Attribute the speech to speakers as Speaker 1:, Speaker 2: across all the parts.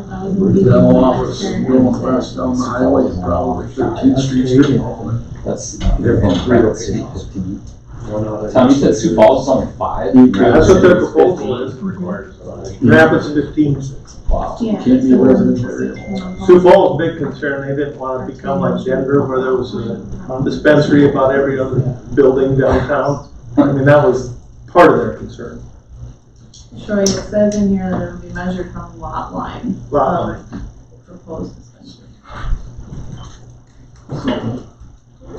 Speaker 1: We're now off of going across down the highway, and probably Thirteenth Street strip mall. and
Speaker 2: That's,
Speaker 1: They're from Freeport City.
Speaker 2: Tom, you said Sioux Falls is only five?
Speaker 1: That's what their proposal is.
Speaker 3: Rapids fifteen.
Speaker 2: Wow.
Speaker 1: Can't be residential.
Speaker 3: Sioux Falls, big concern, they didn't want to become like Denver where there was a dispensary about every other building downtown. I mean, that was part of their concern.
Speaker 4: Troy, it says in here that it'll be measured from lot line
Speaker 3: Lot line.
Speaker 4: of proposed dispensary.
Speaker 5: Oh,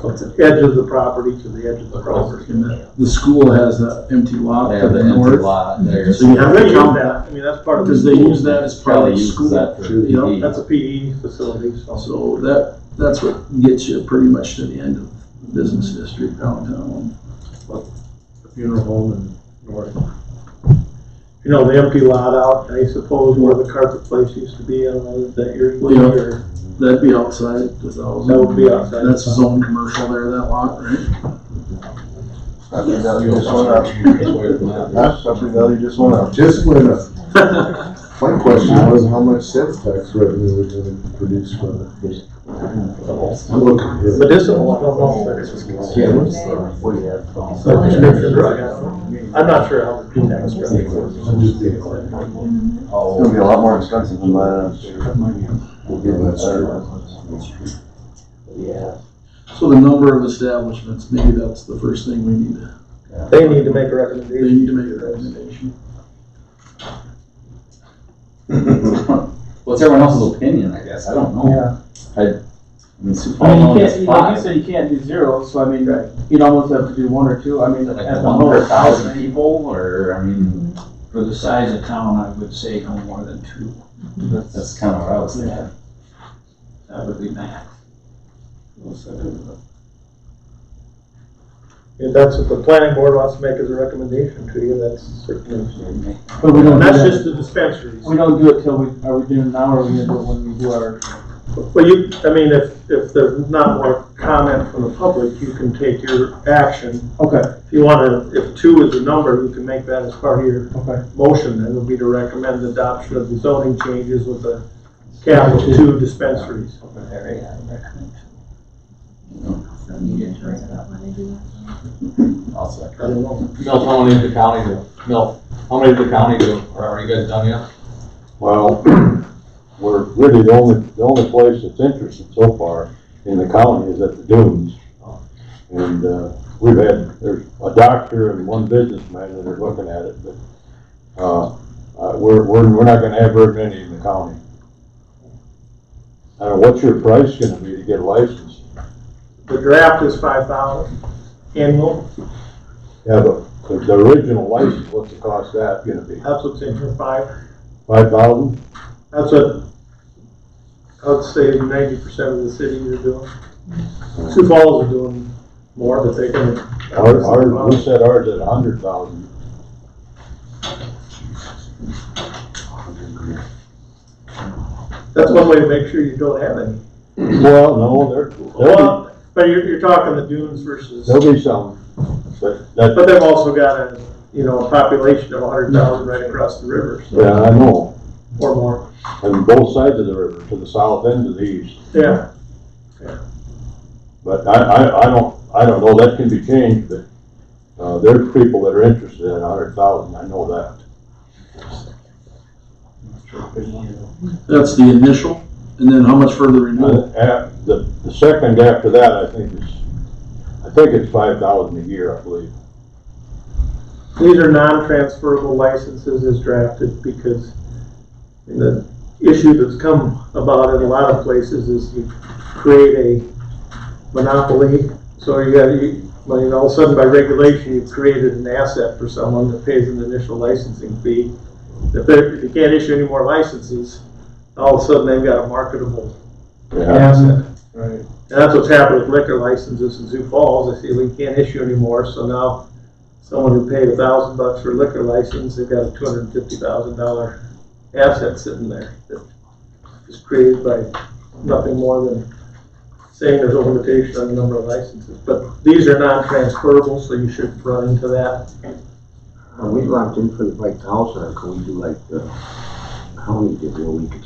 Speaker 3: So it's the edge of the property to the edge of the property.
Speaker 1: And the- The school has an empty lot
Speaker 2: They
Speaker 1: to
Speaker 2: have
Speaker 1: the
Speaker 2: an empty
Speaker 1: north.
Speaker 2: lot there.
Speaker 1: So you
Speaker 3: Yeah,
Speaker 1: have
Speaker 3: they
Speaker 1: to
Speaker 3: use
Speaker 1: count
Speaker 3: that, I mean, that's part of
Speaker 1: because
Speaker 3: the,
Speaker 1: they use that as part
Speaker 2: Probably
Speaker 1: of the
Speaker 2: uses
Speaker 1: school.
Speaker 2: that for E.
Speaker 1: You know,
Speaker 2: PD.
Speaker 3: that's a PE facility, so.
Speaker 1: So that, that's what gets you pretty much to the end of the business district downtown.
Speaker 5: funeral home and north.
Speaker 3: You know, the empty lot out, I suppose, where the carpet place used to be, I don't know if that you're,
Speaker 1: Yeah.
Speaker 3: or
Speaker 1: That'd be outside the thousand.
Speaker 3: That would be outside.
Speaker 1: That's zone commercial there, that lot, right?
Speaker 6: I think that you just went up. That's something that you just went up.
Speaker 5: Just when, my question was how much sales tax revenue we're gonna produce from it. There's- I'm looking here.
Speaker 3: medicinal, I don't know if there's.
Speaker 5: Yeah, what's
Speaker 2: Oh.
Speaker 3: So prescription drug, I don't know. I'm not sure how the P-tax really works.
Speaker 5: the- I'm just being clear.
Speaker 2: Oh.
Speaker 6: It's gonna be a lot more expensive than that.
Speaker 5: We'll give that straight.
Speaker 1: So the number of establishments, maybe that's the first thing we need to,
Speaker 3: They need to make a
Speaker 1: they
Speaker 3: recommendation.
Speaker 1: need to make a recommendation.
Speaker 2: What's everyone else's opinion, I guess? I don't know.
Speaker 7: Yeah,
Speaker 2: I mean, Sioux
Speaker 7: I
Speaker 2: Falls
Speaker 7: mean,
Speaker 2: only
Speaker 7: you can't,
Speaker 2: has
Speaker 7: you- like you
Speaker 2: five.
Speaker 7: said, you can't do zero, so I mean, you'd almost have to do one or two, I mean, at
Speaker 2: Like
Speaker 7: the
Speaker 2: one per
Speaker 7: most.
Speaker 2: thousand people or, I mean,
Speaker 8: For the size of town, I would say no more than two.
Speaker 2: that's, that's kind of what I was thinking.
Speaker 8: That would be max.
Speaker 3: If that's what the planning board wants to make as a recommendation to you, that's certainly.
Speaker 7: But we don't do
Speaker 3: That's
Speaker 7: that,
Speaker 3: just the dispensaries.
Speaker 7: we don't do it till we, are we doing it now or are we gonna do it when we do our,
Speaker 3: Well, you, I mean, if, if there's not more comment from the public, you can take your action.
Speaker 7: okay,
Speaker 3: If you wanna, if two is the number, you can make that as part of your
Speaker 7: okay.
Speaker 3: motion, then it would be to recommend adoption of the zoning changes with the cap of two dispensaries.
Speaker 4: So you get to write that when they do that.
Speaker 2: I'll second.
Speaker 3: I don't know.
Speaker 9: Milt, how many did the county do? Milt, how many did the county do? Or Are you guys done yet?
Speaker 10: Well, we're really the only, the only place that's interested so far in the county is at the dunes. And, uh, we've had, there's a doctor and one businessman that are looking at it, but, uh, uh, we're, we're, we're not gonna have very many in the county. Uh, what's your price gonna be to get a license?
Speaker 3: The draft is five thousand annual,
Speaker 10: Yeah, but the, the original license, what's the cost of that gonna be?
Speaker 3: that's what's in here, five.
Speaker 10: Five thousand?
Speaker 3: That's what I would say ninety percent of the cities are doing. Sioux Falls are doing more, but they can.
Speaker 10: Our, our, we said ours at a hundred thousand.
Speaker 3: That's one way to make sure you don't have any.
Speaker 10: Well, no, there, there'll
Speaker 3: Well, but you're, you're talking the dunes
Speaker 10: be,
Speaker 3: versus,
Speaker 10: there'll be some, but
Speaker 3: but
Speaker 10: that,
Speaker 3: they've also got a, you know, a population of hundred thousand right across the river, so,
Speaker 10: yeah, I know,
Speaker 3: or more.
Speaker 10: and both sides of the river, to the south and to the east.
Speaker 3: Yeah,
Speaker 10: But I, I, I don't, I don't know, that can be changed, but, uh, there's people that are interested in a hundred thousand, I know that.
Speaker 1: That's the initial, and then how much further renewal?
Speaker 10: And at, the, the second after that, I think is, I think it's five thousand a year, I believe.
Speaker 3: these are non-transferable licenses as drafted because the issue that's come about in a lot of places is you create a monopoly. So you got, you, well, you know, all of a sudden by regulation, you've created an asset for someone that pays an initial licensing fee. If they're, if you can't issue any more licenses, all of a sudden they've got a marketable asset.
Speaker 5: Right.
Speaker 3: And that's what's happened with liquor licenses in Sioux Falls, they say we can't issue anymore, so now someone who paid a thousand bucks for a liquor license, they've got a two hundred and fifty thousand dollar asset sitting there that is created by nothing more than saying there's a limitation on the number of licenses, but these are non-transferable, so you shouldn't run into that.
Speaker 6: We locked in for the five thousand, or can we do like, uh, how many did we, we could